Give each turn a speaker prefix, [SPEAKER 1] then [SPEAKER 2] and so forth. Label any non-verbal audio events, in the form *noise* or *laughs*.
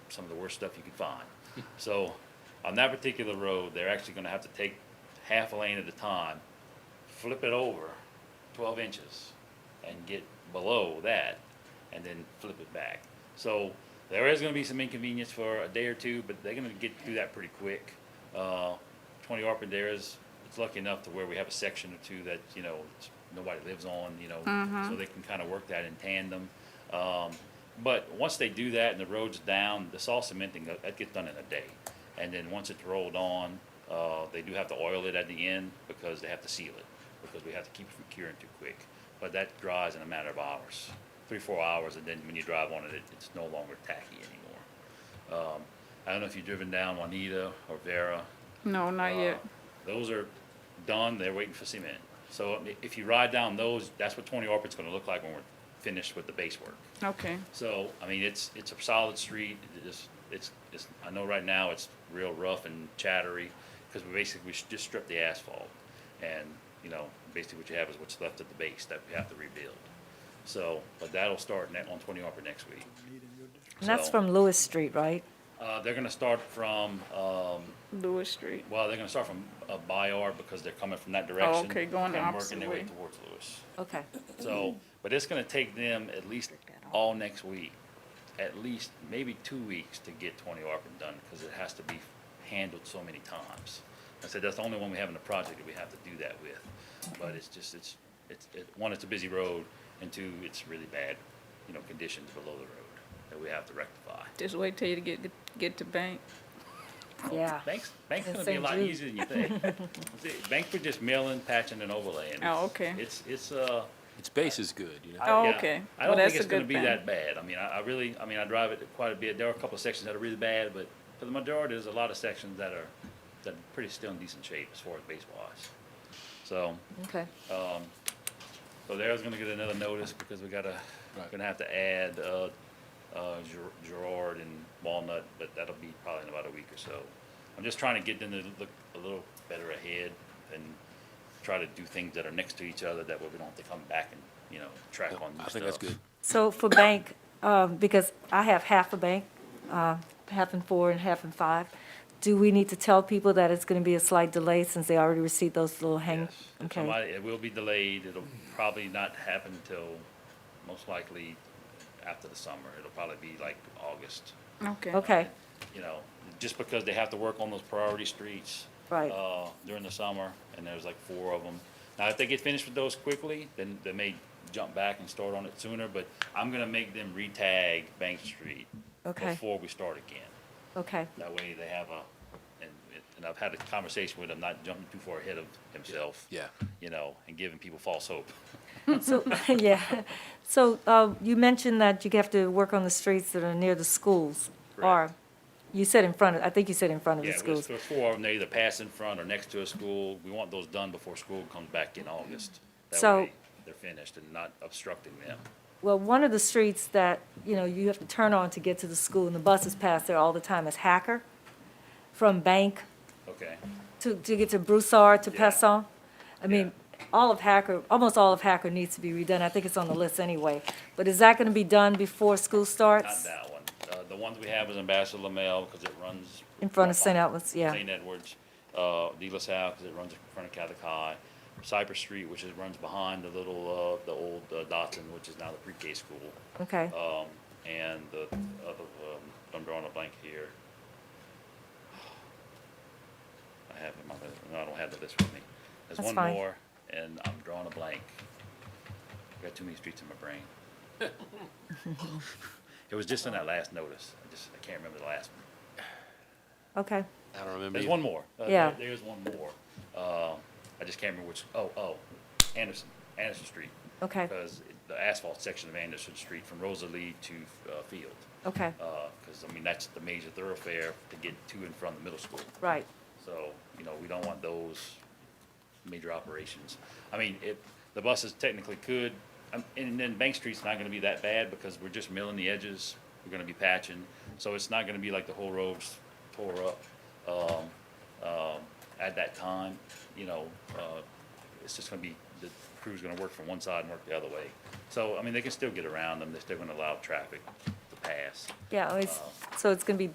[SPEAKER 1] some of the worst stuff you could find. So on that particular road, they're actually gonna have to take half a lane at a time, flip it over twelve inches and get below that and then flip it back. So there is gonna be some inconvenience for a day or two, but they're gonna get through that pretty quick. Uh, twenty Arpenderas, it's lucky enough to where we have a section or two that, you know, it's- nobody lives on, you know, so they can kinda work that in tandem. Um, but once they do that and the road's down, the saw cementing, uh, that gets done in a day. And then once it's rolled on, uh, they do have to oil it at the end because they have to seal it, because we have to keep it from curing too quick. But that dries in a matter of hours, three, four hours, and then when you drive on it, it, it's no longer tacky anymore. Um, I don't know if you've driven down Juanita or Vera.
[SPEAKER 2] No, not
[SPEAKER 1] Uh,
[SPEAKER 2] yet.
[SPEAKER 1] Those are done, they're waiting for cement. So i- if you ride down those, that's what Twenty Orpid's gonna look like when we're finished with the base work.
[SPEAKER 2] Okay.
[SPEAKER 1] So, I mean, it's, it's a solid street, it is, it's, it's, I know right now it's real rough and chattery, because we basically, we should just strip the asphalt. And, you know, basically what you have is what's left at the base that we have to rebuild. So, but that'll start net on twenty Harper next week.
[SPEAKER 3] And that's
[SPEAKER 1] So-
[SPEAKER 3] from Lewis Street, right?
[SPEAKER 1] Uh, they're gonna start from, um,
[SPEAKER 2] Lewis Street.
[SPEAKER 1] well, they're gonna start from, uh, Bayard, because they're coming from that direction.
[SPEAKER 2] Oh, okay, going the
[SPEAKER 1] and
[SPEAKER 2] opposite
[SPEAKER 1] Working their way
[SPEAKER 2] way.
[SPEAKER 1] towards Lewis.
[SPEAKER 3] Okay.
[SPEAKER 1] So, but it's gonna take them at least all next week, at least maybe two weeks to get twenty ARPA done, because it has to be handled so many times. I said, that's the only one we have in the project that we have to do that with, but it's just, it's, it's, it, one, it's a busy road, and two, it's really bad, you know, conditions below the road that we have to rectify.
[SPEAKER 2] Just wait till you get get to bank.
[SPEAKER 3] Yeah.
[SPEAKER 1] Banks, banks
[SPEAKER 3] In
[SPEAKER 1] gonna be a
[SPEAKER 3] St.
[SPEAKER 1] lot
[SPEAKER 3] Jude.
[SPEAKER 1] easier than you think.
[SPEAKER 2] *laughs*
[SPEAKER 1] See, Banks were just milling, patching, and overlaying. It's-
[SPEAKER 2] Oh, okay.
[SPEAKER 1] It's, it's, uh,
[SPEAKER 4] Its base is good, you know.
[SPEAKER 2] Oh,
[SPEAKER 1] Yeah.
[SPEAKER 2] okay.
[SPEAKER 1] I
[SPEAKER 2] Well,
[SPEAKER 1] don't
[SPEAKER 2] that's
[SPEAKER 1] think
[SPEAKER 2] a
[SPEAKER 1] it's gonna
[SPEAKER 2] good
[SPEAKER 1] be
[SPEAKER 2] thing.
[SPEAKER 1] that bad. I mean, I, I really, I mean, I drive it quite a bit. There are a couple of sections that are really bad, but for the majority, there's a lot of sections that are, that are pretty still in decent shape as far as base wise. So,
[SPEAKER 3] Okay.
[SPEAKER 1] so there's gonna get another notice because we gotta,
[SPEAKER 4] Right.
[SPEAKER 1] gonna have to add, uh, uh, Ger- Gerard and Walnut, but that'll be probably in about a week or so. I'm just trying to get them to look a little better ahead and try to do things that are next to each other that way we don't have to come back and, you know, track on new stuff.
[SPEAKER 4] I think that's good.
[SPEAKER 3] So for bank, um, because I have half a bank, uh, half in four and half in five, do we need to tell people that it's going to be a slight delay since they already received those little hang?
[SPEAKER 1] Yes. If
[SPEAKER 3] Okay.
[SPEAKER 1] Somebody, it will be delayed, it'll probably not happen till, most likely, after the summer, it'll probably be like August,
[SPEAKER 2] Okay.
[SPEAKER 3] Okay,
[SPEAKER 1] you know, just because they have to work on those priority streets.
[SPEAKER 3] Right.
[SPEAKER 1] Uh, during the summer, and there's like four of them. Now, if they get finished with those quickly, then they may jump back and start on it sooner, but I'm gonna make them re-tag Bank Street
[SPEAKER 3] Okay.
[SPEAKER 1] before we start again.
[SPEAKER 3] okay,
[SPEAKER 1] That way they have a, and, and I've had a conversation with him, not jumping too far ahead of himself.
[SPEAKER 4] Yeah.
[SPEAKER 1] You know, and giving people false hope.
[SPEAKER 3] so, *laughs* yeah. So uh, you mentioned that you have to work on the streets that are near the schools. Or,
[SPEAKER 1] Correct.
[SPEAKER 3] you said in front of, I think you said in front of the
[SPEAKER 1] Yeah, there's
[SPEAKER 3] schools.
[SPEAKER 1] there's four of them, they either pass in front or next to a school. We want those done before school comes back in August. That
[SPEAKER 3] So-
[SPEAKER 1] way they're finished and not obstructing them.
[SPEAKER 3] Well, one of the streets that, you know, you have to turn on to get to the school, and the buses pass there all the time, is Hacker, from Bank
[SPEAKER 1] Okay,
[SPEAKER 3] to, to get to Broussard, to
[SPEAKER 1] Yeah.
[SPEAKER 3] Pesson. I mean, all of Hacker, almost all of Hacker needs to be redone. I think it's on the list anyway. But is that gonna be done before school
[SPEAKER 1] not
[SPEAKER 3] starts?
[SPEAKER 1] that one. Uh, the ones we have is Ambassador Lamel, because it runs.
[SPEAKER 3] In front of
[SPEAKER 1] right
[SPEAKER 3] St.
[SPEAKER 1] by-
[SPEAKER 3] Edwards, yeah.
[SPEAKER 1] St. Edwards, uh, De La Salle, because it runs in front of Catholic High. Cypress Street, which is, runs behind the little, uh, the old uh, Dotson, which is now the pre-K school.
[SPEAKER 3] Okay,
[SPEAKER 1] Um, and the other, um, I'm drawing a blank here. I have it in my, list- no, I don't have the list with me. There's
[SPEAKER 3] That's
[SPEAKER 1] one
[SPEAKER 3] fine.
[SPEAKER 1] more, and I'm drawing a blank. I got too many streets in my brain. It was just in that last notice, I just, I can't remember the last one.
[SPEAKER 3] okay.
[SPEAKER 4] I don't remember.
[SPEAKER 1] There's
[SPEAKER 4] either.
[SPEAKER 1] one more. Uh,
[SPEAKER 3] Yeah.
[SPEAKER 1] there- There is one more. Uh, I just can't remember which, oh, oh, Anderson, Anderson Street.
[SPEAKER 3] Okay.
[SPEAKER 1] Because the asphalt section of Anderson Street from Rosalie to, uh, Field.
[SPEAKER 3] Okay,
[SPEAKER 1] Because, uh, I mean, that's the major thoroughfare to get to and from the middle school.
[SPEAKER 3] right.
[SPEAKER 1] So, you know, we don't want those major operations. I mean, if, the buses technically could, um, and then Bank Street's not gonna be that bad because we're just milling the edges, we're gonna be patching. So it's not gonna be like the whole road's tore up, um, um, at that time, you know, uh, it's just gonna be, the crew's gonna work from one side and work the other way. So, I mean, they can still get around them, they're still gonna allow traffic to past. Uh,
[SPEAKER 3] Yeah, it's, so it's gonna be